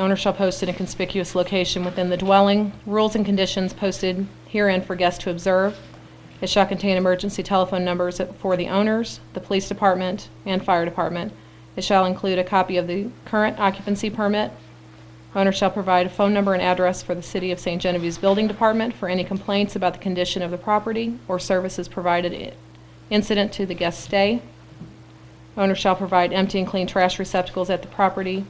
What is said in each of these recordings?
Owner shall post in a conspicuous location within the dwelling. Rules and conditions posted herein for guests to observe. It shall contain emergency telephone numbers for the owners, the police department, and fire department. It shall include a copy of the current occupancy permit. Owner shall provide a phone number and address for the City of St. Genevieve's Building Department for any complaints about the condition of the property or services provided i- incident to the guest stay. Owner shall provide empty and clean trash receptacles at the property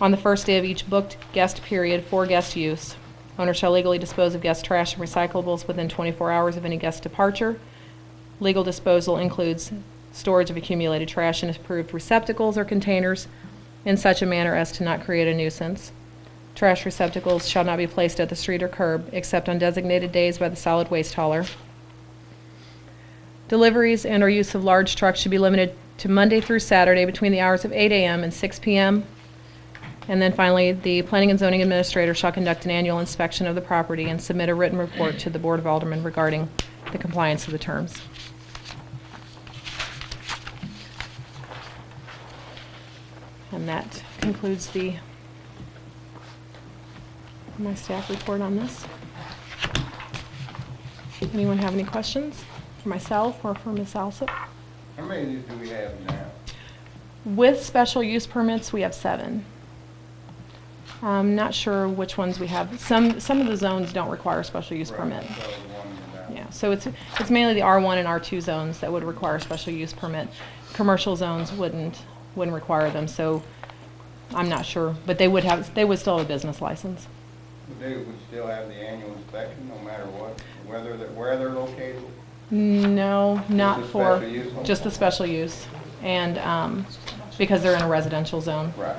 on the first day of each booked guest period for guest use. Owner shall legally dispose of guest trash and recyclables within 24 hours of any guest departure. Legal disposal includes storage of accumulated trash in approved receptacles or containers in such a manner as to not create a nuisance. Trash receptacles shall not be placed at the street or curb except on designated days by the solid waste hauler. Deliveries and/or use of large trucks should be limited to Monday through Saturday between the hours of 8 a.m. and 6 p.m. And then finally, the planning and zoning administrator shall conduct an annual inspection of the property and submit a written report to the Board of Aldermen regarding the compliance of the terms. And that concludes the, my staff report on this. Anyone have any questions for myself or for Ms. Alsop? How many do we have now? With special use permits, we have seven. I'm not sure which ones we have. Some, some of the zones don't require a special use Right, permit. so the one without. Yeah, so it's, it's mainly the R1 and R2 zones that would require a special use permit. Commercial zones wouldn't, wouldn't require them, so I'm not sure. But they would have, they would still have a business license. Would They would still have the annual inspection, no matter what, whether, they're- where they're located? No, not the for, special use one? just the special use. And, um, because they're in a residential zone. Right.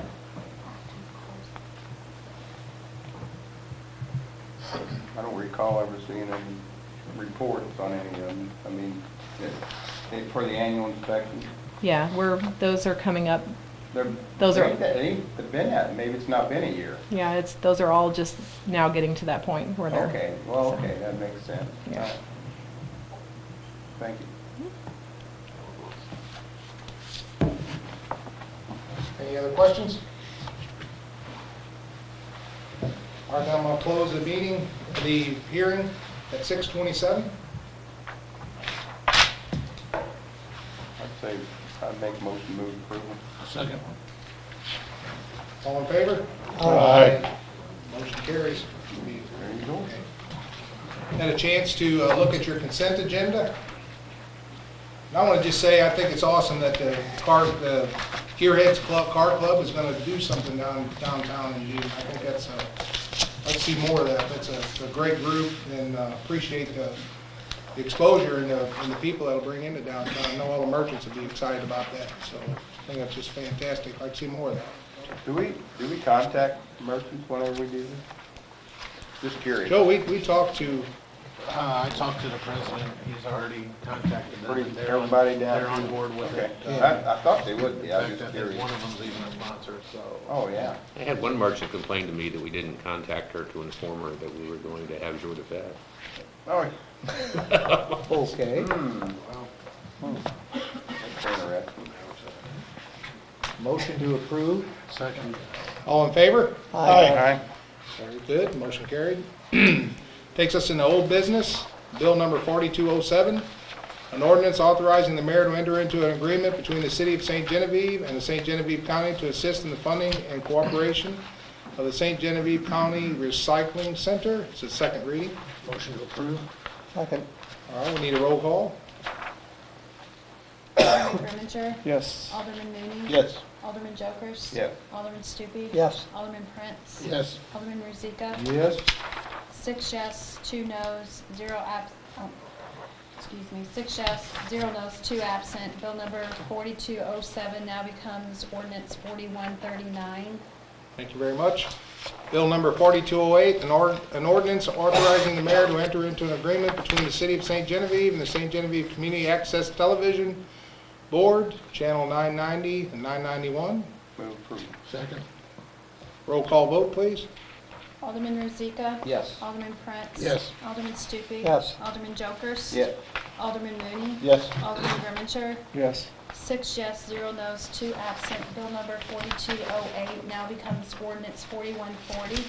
I don't recall ever seeing any reports on any of them. I mean, it- it- for the annual inspection, Yeah, we're, those are coming up they're. Those are- ain't that- ain't that been that, maybe it's not been a year. Yeah, it's, those are all just now getting to that point where they're. Okay, well, so. okay, that makes sense. Yeah. All right. Thank you. Any other questions? All right, now I'm going to close the meeting, the hearing at 6:27. I'd say, I'd make a motion to move approval. Second. All in favor? Aye. Motion carries. We There you go. Had a chance to uh, look at your consent agenda. And I want to just say, I think it's awesome that the car, the Deerheads Club, Car Club is going to do something down downtown in June. I think that's, uh, let's see more of that. That's a- it's a great group and uh, appreciate the the exposure and the, and the people that'll bring into downtown. I know all the merchants will be excited about that, so I think that's just fantastic. I'd like to see more of that. Do we, do we contact merchants whenever we do this? Just curious. Joe, we, we talked to, Uh, I talked to the president, he's already contacted them. Pretty- They're on- Everybody down? They're on board with it. Okay. I, I thought they would be, In I was fact, I just think curious. one of them's even a sponsor, so. Oh, yeah. I had one merchant complain to me that we didn't contact her to inform her that we were going to have jour de fête. Oh, okay, that's interesting. motion to approve. Second. All in favor? Aye. Very good, motion carried. Takes us into old business, bill number 4207, an ordinance authorizing the mayor to enter into an agreement between the city of St. Genevieve and the St. Genevieve County to assist in the funding and cooperation of the St. Genevieve County Recycling Center. It's a second reading. Motion to approve? Second. All right, we need a roll call. Grimminger? Yes. Alderman Mooney? Yes. Alderman Jokers? Yes. Alderman Stupi? Yes. Alderman Prince? Yes. Alderman Rozika? Yes. Six yes, two no's, zero abs, oh, excuse me, six yes, zero no's, two absent. Bill number 4207 now becomes ordinance 4139. Thank you very much. Bill number 4208, an ord- an ordinance authorizing the mayor to enter into an agreement between the City of St. Genevieve and the St. Genevieve Community Access Television Board, Channel 990 and 991. Move approval. Second. Roll call vote, please. Alderman Rozika? Yes. Alderman Prince? Yes. Alderman Stupi? Yes. Alderman Jokers? Yes. Alderman Mooney? Yes. Alderman Grimminger? Yes. Six yes, zero no's, oh two absent. Bill number 4208 now becomes ordinance 4140.